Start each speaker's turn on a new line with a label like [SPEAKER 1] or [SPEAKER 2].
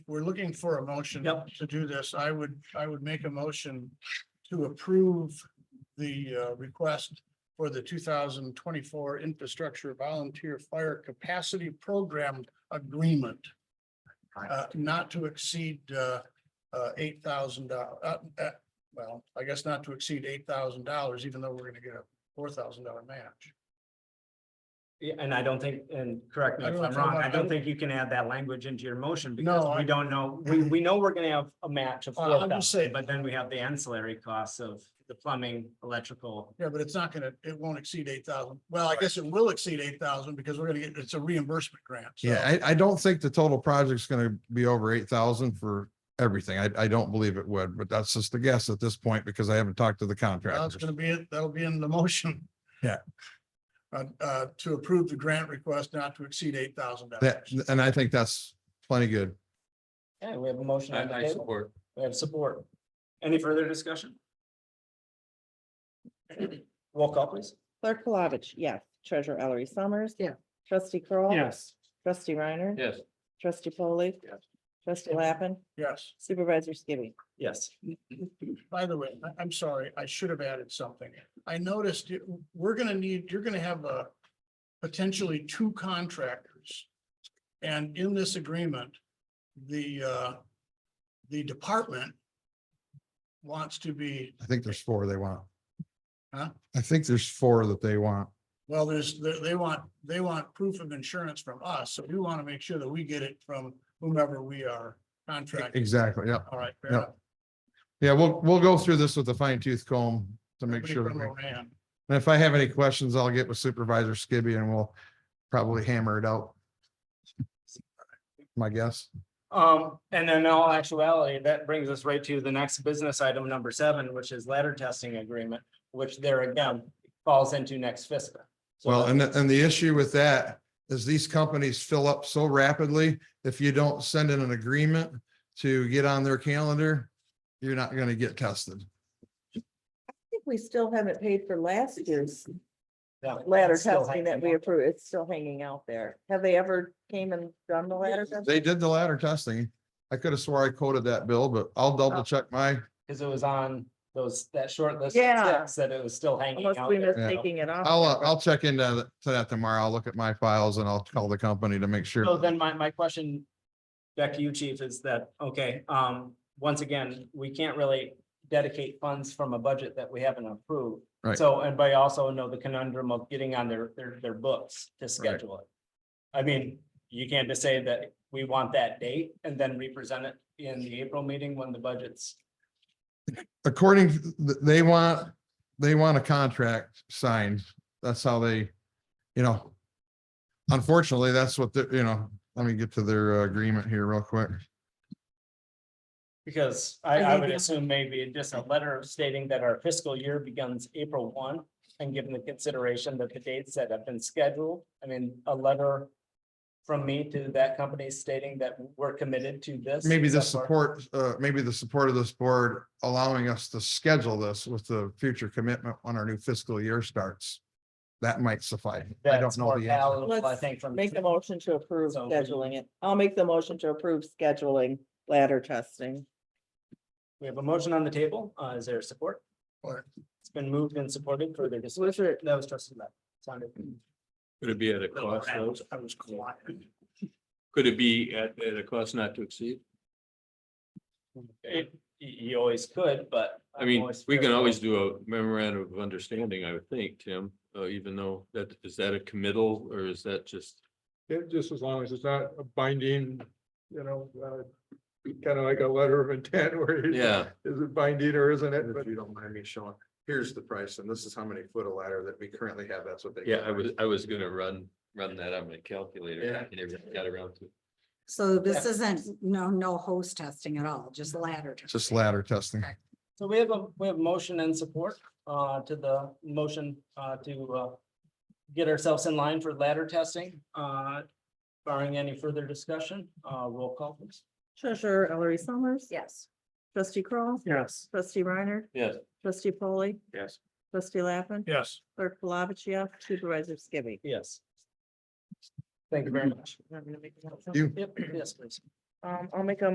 [SPEAKER 1] we're looking for a motion
[SPEAKER 2] Yep.
[SPEAKER 1] to do this, I would, I would make a motion to approve the uh, request for the two thousand twenty-four infrastructure volunteer fire capacity program agreement. Uh, not to exceed uh, uh, eight thousand dollars, uh, uh, well, I guess not to exceed eight thousand dollars, even though we're gonna get a four thousand dollar match.
[SPEAKER 2] Yeah, and I don't think, and correct me
[SPEAKER 1] I
[SPEAKER 2] if
[SPEAKER 1] don't
[SPEAKER 2] I'm
[SPEAKER 1] know,
[SPEAKER 2] wrong,
[SPEAKER 1] I
[SPEAKER 2] I don't
[SPEAKER 1] don't-
[SPEAKER 2] think you can add that language into your motion
[SPEAKER 1] No,
[SPEAKER 2] because
[SPEAKER 1] I-
[SPEAKER 2] we don't know, we, we know we're gonna have a match of
[SPEAKER 1] Uh, I'm
[SPEAKER 2] four
[SPEAKER 1] just
[SPEAKER 2] thousand,
[SPEAKER 1] saying-
[SPEAKER 2] but then we have the ancillary costs of the plumbing, electrical.
[SPEAKER 1] Yeah, but it's not gonna, it won't exceed eight thousand. Well, I guess it will exceed eight thousand because we're gonna get, it's a reimbursement grant. so-
[SPEAKER 3] Yeah, I, I don't think the total project's gonna be over eight thousand for everything. I, I don't believe it would, but that's just a guess at this point because I haven't talked to the
[SPEAKER 1] Well, That's
[SPEAKER 3] contractors.
[SPEAKER 1] gonna be it. That'll be in the motion.
[SPEAKER 3] Yeah.
[SPEAKER 1] Uh, uh, to approve the grant request not to exceed eight thousand
[SPEAKER 3] That,
[SPEAKER 1] dollars.
[SPEAKER 3] and I think that's plenty good.
[SPEAKER 2] Yeah, we have a motion on the table,
[SPEAKER 4] support.
[SPEAKER 2] we have support. Any further discussion? Roll call please.
[SPEAKER 5] Clerk Palovich, yes. Treasurer Ellery Summers. Yeah. Trustee Kroll,
[SPEAKER 2] Yes.
[SPEAKER 5] Trustee Reiner.
[SPEAKER 4] Yes.
[SPEAKER 5] Trustee Foley,
[SPEAKER 2] Yes.
[SPEAKER 5] Trustee Lappin.
[SPEAKER 1] Yes,
[SPEAKER 5] Supervisor Skibby.
[SPEAKER 2] Yes.
[SPEAKER 1] by the way, I, am sorry, I should have added something. I noticed you- we're gonna need, you're gonna have a potentially two contractors. And in this agreement, the, uh, the department wants to be,
[SPEAKER 3] I think there's four they want.
[SPEAKER 1] Huh?
[SPEAKER 3] I think there's four that they want.
[SPEAKER 1] well, there's, they, they want, they want proof of insurance from us, so we want to make sure that we get it from whomever we are contracting.
[SPEAKER 3] E, Exactly, yeah.
[SPEAKER 1] All right. fair
[SPEAKER 3] Yeah.
[SPEAKER 1] enougth.
[SPEAKER 3] Yeah, we'll, we'll go through this with a fine tooth comb to make
[SPEAKER 1] Pretty
[SPEAKER 3] sure. that we-
[SPEAKER 1] criminal man.
[SPEAKER 3] And if I have any questions, I'll get with Supervisor Skibby and we'll probably hammer it out. My guess.
[SPEAKER 2] Um, and in all actuality, that brings us right to the next business item number seven, which is ladder testing agreement, which there again falls into next fiscal. So
[SPEAKER 3] Well, and, the- and the issue with that is these companies fill up so rapidly. If you don't send in an agreement to get on their calendar, you're not going to get tested.
[SPEAKER 5] I think we still haven't paid for last year's
[SPEAKER 2] that-
[SPEAKER 5] ladder
[SPEAKER 2] that's still
[SPEAKER 5] testing that we
[SPEAKER 2] hanging out.
[SPEAKER 5] approved. It's still hanging out there. Have they ever came and done the ladder testing?
[SPEAKER 3] They did the ladder testing. I could have swore I coded that bill, but I'll
[SPEAKER 2] Oh.
[SPEAKER 3] double check my,
[SPEAKER 2] Cause it was on those, that short list. of
[SPEAKER 5] Yeah.
[SPEAKER 2] six That it was still hanging
[SPEAKER 5] Unless
[SPEAKER 2] out
[SPEAKER 5] we
[SPEAKER 2] there.
[SPEAKER 5] missed taking it off.
[SPEAKER 3] I'll, uh, I'll check into th- to that tomorrow. I'll look at my files and I'll call the company to make
[SPEAKER 2] So
[SPEAKER 3] sure.
[SPEAKER 2] then my, my question back to you, chief, is that, okay, um, once again, we can't really dedicate funds from a budget that we haven't approved.
[SPEAKER 3] Right.
[SPEAKER 2] So, and but I also know the conundrum of getting on their, their, their books to schedule it. I mean, you can't just say that we want that date and then represent it in the April meeting when the budget's.
[SPEAKER 3] According, th- they want, they want a contract signed. That's how they, you know. Unfortunately, that's what the, you know, let me get to their uh, agreement here real quick.
[SPEAKER 2] Because I,
[SPEAKER 5] I
[SPEAKER 2] I
[SPEAKER 5] think
[SPEAKER 2] would
[SPEAKER 5] that-
[SPEAKER 2] assume maybe just a letter stating that our fiscal year begins April one. And given the consideration that the dates that have been scheduled, I mean, a letter. From me to that company stating that we're committed to this.
[SPEAKER 3] Maybe
[SPEAKER 2] is
[SPEAKER 3] the
[SPEAKER 2] that part-
[SPEAKER 3] support, uh, maybe the support of this board allowing us to schedule this with the future commitment when our new fiscal year starts. That might suffice. I don't
[SPEAKER 2] That's
[SPEAKER 3] know
[SPEAKER 2] more
[SPEAKER 3] the answer.
[SPEAKER 2] palatable, I
[SPEAKER 5] Let's
[SPEAKER 2] think from.
[SPEAKER 5] Make the motion to approve
[SPEAKER 2] So-
[SPEAKER 5] scheduling it. I'll make the motion to approve scheduling ladder testing.
[SPEAKER 2] We have a motion on the table. Uh, is there support?
[SPEAKER 1] Or-
[SPEAKER 2] It's been moved and supported further
[SPEAKER 5] Was
[SPEAKER 2] discussion.
[SPEAKER 5] it
[SPEAKER 2] That was trustee left. Sounded.
[SPEAKER 4] Could it be at a cost?
[SPEAKER 2] Oh, I
[SPEAKER 4] though?
[SPEAKER 2] was I was quiet.
[SPEAKER 4] Could it be at, at a cost not to exceed?
[SPEAKER 2] It- you, you always could, but.
[SPEAKER 4] I
[SPEAKER 2] I'm
[SPEAKER 4] mean, we can
[SPEAKER 2] fearful.
[SPEAKER 4] always do a memorandum of understanding, I would think, Tim, uh, even though that, is that a committal or is that just?
[SPEAKER 6] Yeah, just as long as it's not a binding, you know, kind of like a letter of intent where you-
[SPEAKER 4] Yeah,
[SPEAKER 6] is it binding or isn't it? But
[SPEAKER 3] If you don't mind me showing, here's the price and this is how many foot of ladder that we currently have. That's what they.
[SPEAKER 4] yeah, I was, I was gonna run, run that on my calculator. I never got around to. it.
[SPEAKER 7] So this isn't, no, no hose testing at all, just ladder. testing.
[SPEAKER 3] Just ladder testing.
[SPEAKER 2] So we have a, we have motion and support uh to the motion uh to uh. Get ourselves in line for ladder testing uh barring any further discussion, uh roll call please.
[SPEAKER 5] Treasurer Ellery Summers.
[SPEAKER 7] Yes.
[SPEAKER 5] Trustee Kroll,
[SPEAKER 2] Yes.
[SPEAKER 5] Trustee Reiner.
[SPEAKER 4] Yes.
[SPEAKER 5] Trustee Polly.
[SPEAKER 4] Yes.
[SPEAKER 5] Trustee Lappin.
[SPEAKER 1] Yes.
[SPEAKER 5] Clerk Palovich, yes. Supervisor Skibby.
[SPEAKER 2] Yes. Thank you very much.
[SPEAKER 5] I'm gonna make a motion.
[SPEAKER 3] You-
[SPEAKER 2] Yep, yes, please.
[SPEAKER 5] Um, I'll make a